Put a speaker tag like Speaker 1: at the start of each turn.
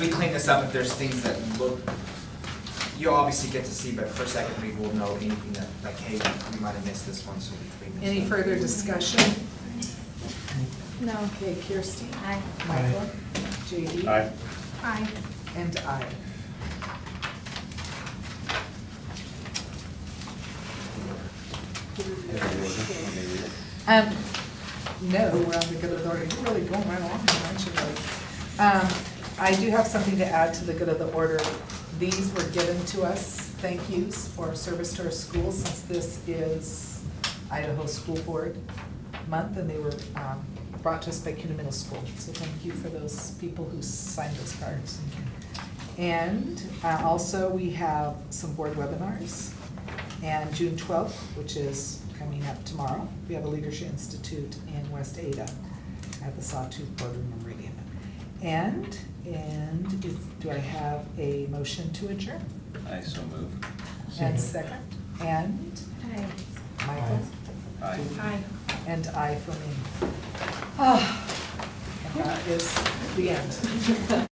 Speaker 1: we clean this up, if there's things that look, you'll obviously get to see, but for second read, we'll know anything that, like, hey, we might have missed this one, so we clean this up.
Speaker 2: Any further discussion?
Speaker 3: No.
Speaker 2: Okay, Kirsty.
Speaker 3: Aye.
Speaker 2: Michael. JD.
Speaker 4: Aye.
Speaker 3: Aye.
Speaker 2: And I.
Speaker 3: Um,
Speaker 2: No, we're on the good of the order. You're really going right along, here, aren't you, buddy? Um, I do have something to add to the good of the order. These were given to us, thank yous for service to our schools, since this is Idaho School Board Month, and they were um, brought to us by CUNA Middle School. So thank you for those people who signed those cards. And uh, also, we have some board webinars. And June twelfth, which is coming up tomorrow, we have a Leadership Institute in West Ada at the Sawtooth Boardroom in Meridian. And, and if- do I have a motion to adjourn?
Speaker 4: I so move.
Speaker 5: Second.
Speaker 2: And second, and
Speaker 3: Aye.
Speaker 2: Michael?
Speaker 4: Aye.
Speaker 3: Aye.
Speaker 2: And I for me. Ah, And that is the end.